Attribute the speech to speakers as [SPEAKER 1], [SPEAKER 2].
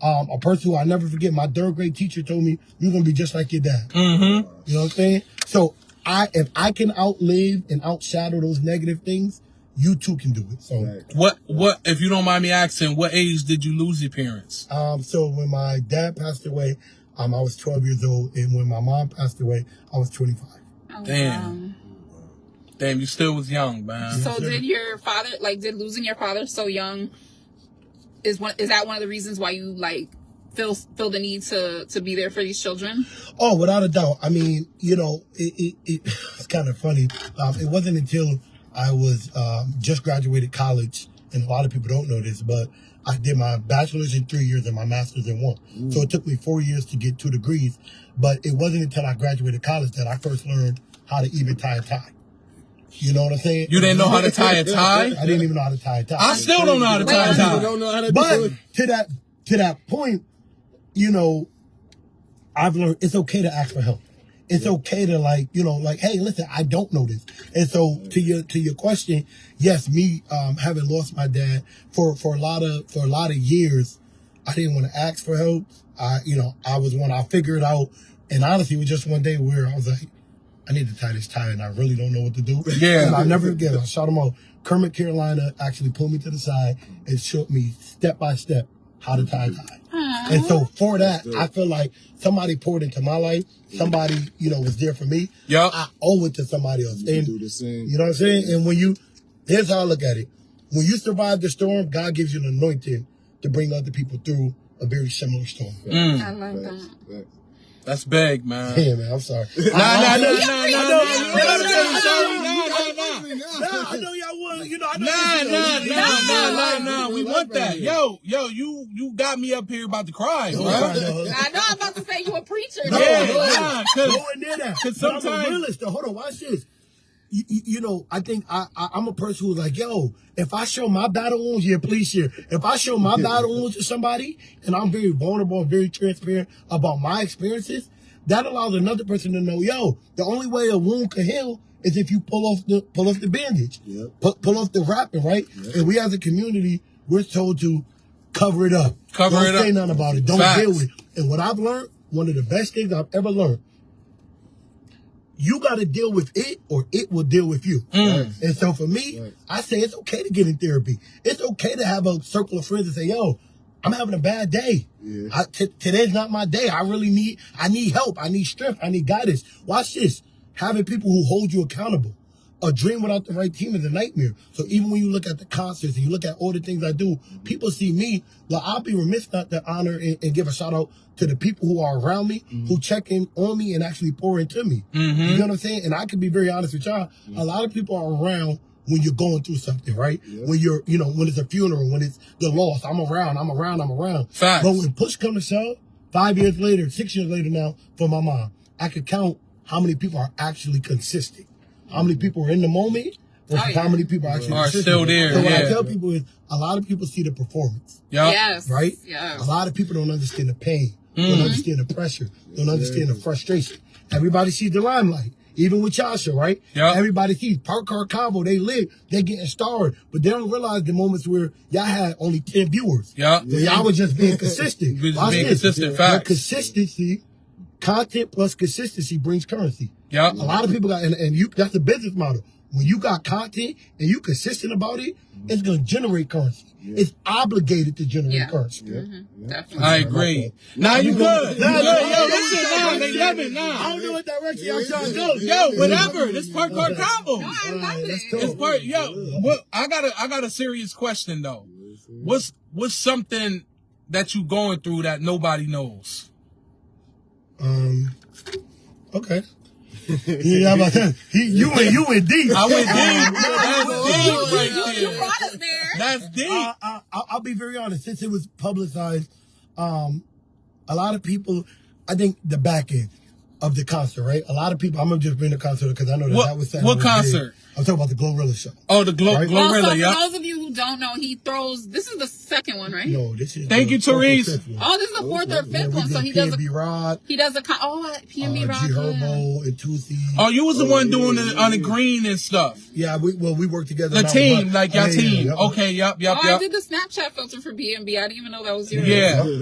[SPEAKER 1] Um, a person who I never forget, my third grade teacher told me, "You're gonna be just like your dad."
[SPEAKER 2] Mm-hmm.
[SPEAKER 1] You know what I'm saying? So I, if I can outlive and outshadow those negative things, you too can do it. So,
[SPEAKER 3] Right.
[SPEAKER 2] What what if you don't mind me asking, what age did you lose your parents?
[SPEAKER 1] um, so when my dad passed away, um, I was 12 years old, and when my mom passed away, I was 25.
[SPEAKER 4] Oh,
[SPEAKER 2] Damn.
[SPEAKER 4] wow.
[SPEAKER 2] Damn, you still was young, man.
[SPEAKER 4] So did your father like did losing your father so young is one is that one of the reasons why you like feel feel the need to to be there for these children?
[SPEAKER 1] Oh, without a doubt. I mean, you know, it, it, it it's kind of funny. Um, it wasn't until I was um, just graduated college, and a lot of people don't know this, but I did my bachelor's in three years and my master's in one. So it took me four years to get two degrees. But it wasn't until I graduated college that I first learned how to even tie a tie. You know what I'm saying?
[SPEAKER 2] You didn't know how to tie a tie?
[SPEAKER 1] I didn't even know how to tie a tie.
[SPEAKER 2] I still don't know how to tie a
[SPEAKER 3] People
[SPEAKER 2] tie.
[SPEAKER 3] don't know how to do
[SPEAKER 1] But
[SPEAKER 3] it.
[SPEAKER 1] to that to that point, you know, I've learned it's okay to ask for help. It's okay to like, you know, like, hey, listen, I don't know this. And so to your to your question, yes, me um having lost my dad for for a lot of for a lot of years, I didn't want to ask for help. I you know, I was one I figured out and honestly it was just one day where I was like, I need to tie this tie and I really don't know what to do.
[SPEAKER 2] Yeah.
[SPEAKER 1] And I never forget, I shot him out. Kermit Carolina actually pulled me to the side and showed me step by step how to tie a tie. And so for that, I feel like somebody poured into my life. Somebody, you know, was there for me.
[SPEAKER 2] Yup.
[SPEAKER 1] I owe it to somebody else.
[SPEAKER 3] You do
[SPEAKER 1] And
[SPEAKER 3] the same.
[SPEAKER 1] you know what I'm saying? And when you, here's how I look at it. When you survive the storm, God gives you an anointing to bring other people through a very similar storm.
[SPEAKER 2] Um.
[SPEAKER 4] I love
[SPEAKER 3] Facts,
[SPEAKER 4] that.
[SPEAKER 3] facts.
[SPEAKER 2] Mm, That's big, man.
[SPEAKER 1] Yeah, man, I'm sorry.
[SPEAKER 2] Nah, nah, nah, nah, nah,
[SPEAKER 4] pretty
[SPEAKER 2] nah, nah,
[SPEAKER 4] good. You're
[SPEAKER 2] nah,
[SPEAKER 4] pretty
[SPEAKER 2] nah, nah,
[SPEAKER 4] good.
[SPEAKER 2] nah, nah, nah.
[SPEAKER 1] Nah, I know y'all want, you know, I know
[SPEAKER 2] Nah,
[SPEAKER 1] you
[SPEAKER 2] nah,
[SPEAKER 1] know,
[SPEAKER 2] nah,
[SPEAKER 4] Nah.
[SPEAKER 2] nah, nah, nah. We want that. Yo, yo, you you got me up here about to cry,
[SPEAKER 1] Don't
[SPEAKER 2] bro.
[SPEAKER 1] cry, dog.
[SPEAKER 4] I know I'm about to say you a preacher.
[SPEAKER 1] No,
[SPEAKER 2] Yeah,
[SPEAKER 1] no,
[SPEAKER 2] nah, 'cause-
[SPEAKER 1] nowhere near that.
[SPEAKER 2] 'cause
[SPEAKER 1] But I'm a
[SPEAKER 2] sometimes-
[SPEAKER 1] realist, though. Hold on, watch this. You, you, you know, I think I, I I'm a person who's like, yo, if I show my battle wounds, yeah, please share. If I show my battle wounds to somebody, and I'm very vulnerable, and very transparent about my experiences, that allows another person to know, yo, the only way a wound can heal is if you pull off the pull off the bandage,
[SPEAKER 3] Yep.
[SPEAKER 1] pull, pull off the wrapping, right? And we as a community, we're told to cover it up,
[SPEAKER 2] Cover
[SPEAKER 1] Don't
[SPEAKER 2] it up.
[SPEAKER 1] say nothing about it, don't
[SPEAKER 2] Facts.
[SPEAKER 1] deal with it. And what I've learned, one of the best things I've ever learned, you got to deal with it or it will deal with you. And so for me,
[SPEAKER 3] Right.
[SPEAKER 1] I say it's okay to get in therapy. It's okay to have a circle of friends and say, yo, I'm having a bad day.
[SPEAKER 3] Yeah.
[SPEAKER 1] I- t- today's not my day. I really need, I need help. I need strength. I need guidance. Watch this. Having people who hold you accountable. A dream without the right team is a nightmare. So even when you look at the concerts and you look at all the things I do, people see me. Well, I'll be remiss not to honor and, and give a shout out to the people who are around me, who check in on me and actually pour into me. You know what I'm saying? And I can be very honest with y'all. A lot of people are around when you're going through something, right?
[SPEAKER 3] Yeah.
[SPEAKER 1] When you're, you know, when it's a funeral, when it's the loss, I'm around, I'm around, I'm around.
[SPEAKER 2] Facts.
[SPEAKER 1] But when push comes to shove, five years later, six years later now, for my mom, I could count how many people are actually consistent, how many people are in the moment, versus
[SPEAKER 4] Oh, yeah.
[SPEAKER 1] how many people are actually
[SPEAKER 2] Are
[SPEAKER 1] consistent.
[SPEAKER 2] still there,
[SPEAKER 1] So what I
[SPEAKER 2] yeah.
[SPEAKER 1] tell people is, a lot of people see the performance
[SPEAKER 2] Yup.
[SPEAKER 4] Yes.
[SPEAKER 1] right?
[SPEAKER 4] Yeah.
[SPEAKER 1] A lot of people don't understand the pain,
[SPEAKER 2] Mm-hmm.
[SPEAKER 1] don't understand the pressure, don't understand the frustration. Everybody sees the limelight, even with Yasha, right?
[SPEAKER 2] Yeah.
[SPEAKER 1] Everybody sees Park Car Combo, they live, they getting starred, but they don't realize the moments where y'all had only 10 viewers.
[SPEAKER 2] Yup.
[SPEAKER 1] Where y'all was just being consistent.
[SPEAKER 2] We just
[SPEAKER 1] Watch
[SPEAKER 2] being
[SPEAKER 1] this. But
[SPEAKER 2] consistent, facts.
[SPEAKER 1] Consistency, content plus consistency brings currency.
[SPEAKER 2] Yup.
[SPEAKER 1] A lot of people got, and, and you that's the business model. When you got content and you consistent about it, it's gonna generate currency. It's obligated to generate
[SPEAKER 4] Yeah. Mm-hmm.
[SPEAKER 1] currency.
[SPEAKER 4] Definitely.
[SPEAKER 2] I agree. Nah, you good. Nah, nah, yo, this shit, nah, they love it,
[SPEAKER 1] I
[SPEAKER 2] nah.
[SPEAKER 1] don't know what direction y'all trying to go.
[SPEAKER 2] Yo, whatever. This part card combo.
[SPEAKER 4] No, I love
[SPEAKER 1] Alright,
[SPEAKER 4] it.
[SPEAKER 1] let's go.
[SPEAKER 2] This part, yo, what I got a I got a serious question though. What's what's something that you going through that nobody knows?
[SPEAKER 1] Um, okay. yeah, I'm about to- he, you went, you went deep.
[SPEAKER 2] I went deep. That's
[SPEAKER 4] You, you,
[SPEAKER 2] deep
[SPEAKER 4] you
[SPEAKER 2] right there.
[SPEAKER 4] brought us there.
[SPEAKER 2] That's deep.
[SPEAKER 1] I, I, I- I'll be very honest. Since it was publicized, um, a lot of people, I think the back end of the concert, right? A lot of people. I'm gonna just bring the concert because I know that
[SPEAKER 2] What-
[SPEAKER 1] that was
[SPEAKER 2] what
[SPEAKER 1] was big.
[SPEAKER 2] concert?
[SPEAKER 1] I'm talking about the Glorilla show.
[SPEAKER 2] Oh, the glo-
[SPEAKER 1] Right.
[SPEAKER 4] Well, so
[SPEAKER 2] Glorilla,
[SPEAKER 4] for
[SPEAKER 2] yeah.
[SPEAKER 4] those of you who don't know, he throws. This is the second one, right?
[SPEAKER 1] No, this is.
[SPEAKER 2] Thank
[SPEAKER 1] the
[SPEAKER 2] you,
[SPEAKER 1] fourth or
[SPEAKER 2] Therese.
[SPEAKER 1] fifth one.
[SPEAKER 4] Oh, this is the fourth or
[SPEAKER 1] Yeah, we
[SPEAKER 4] fifth one. So
[SPEAKER 1] did
[SPEAKER 4] he does. A,
[SPEAKER 1] PNB Rod,
[SPEAKER 4] he does a. con- Oh,
[SPEAKER 1] uh,
[SPEAKER 4] PNB
[SPEAKER 1] G
[SPEAKER 4] Rock. yeah.
[SPEAKER 1] Herbo, and Tootsie.
[SPEAKER 2] Oh, you was the
[SPEAKER 3] Oh,
[SPEAKER 2] one
[SPEAKER 3] yeah,
[SPEAKER 2] doing
[SPEAKER 3] yeah,
[SPEAKER 2] it on the
[SPEAKER 3] yeah.
[SPEAKER 2] green and stuff.
[SPEAKER 1] Yeah, we well we worked together.
[SPEAKER 2] The
[SPEAKER 1] and I was
[SPEAKER 2] team,
[SPEAKER 1] like-
[SPEAKER 2] like your
[SPEAKER 1] Yeah, yeah,
[SPEAKER 2] team.
[SPEAKER 1] yeah.
[SPEAKER 2] Okay, yup, yup,
[SPEAKER 4] Oh, I
[SPEAKER 2] yup.
[SPEAKER 4] did the Snapchat filter for B and B. I didn't even know that was yours.
[SPEAKER 2] Yeah.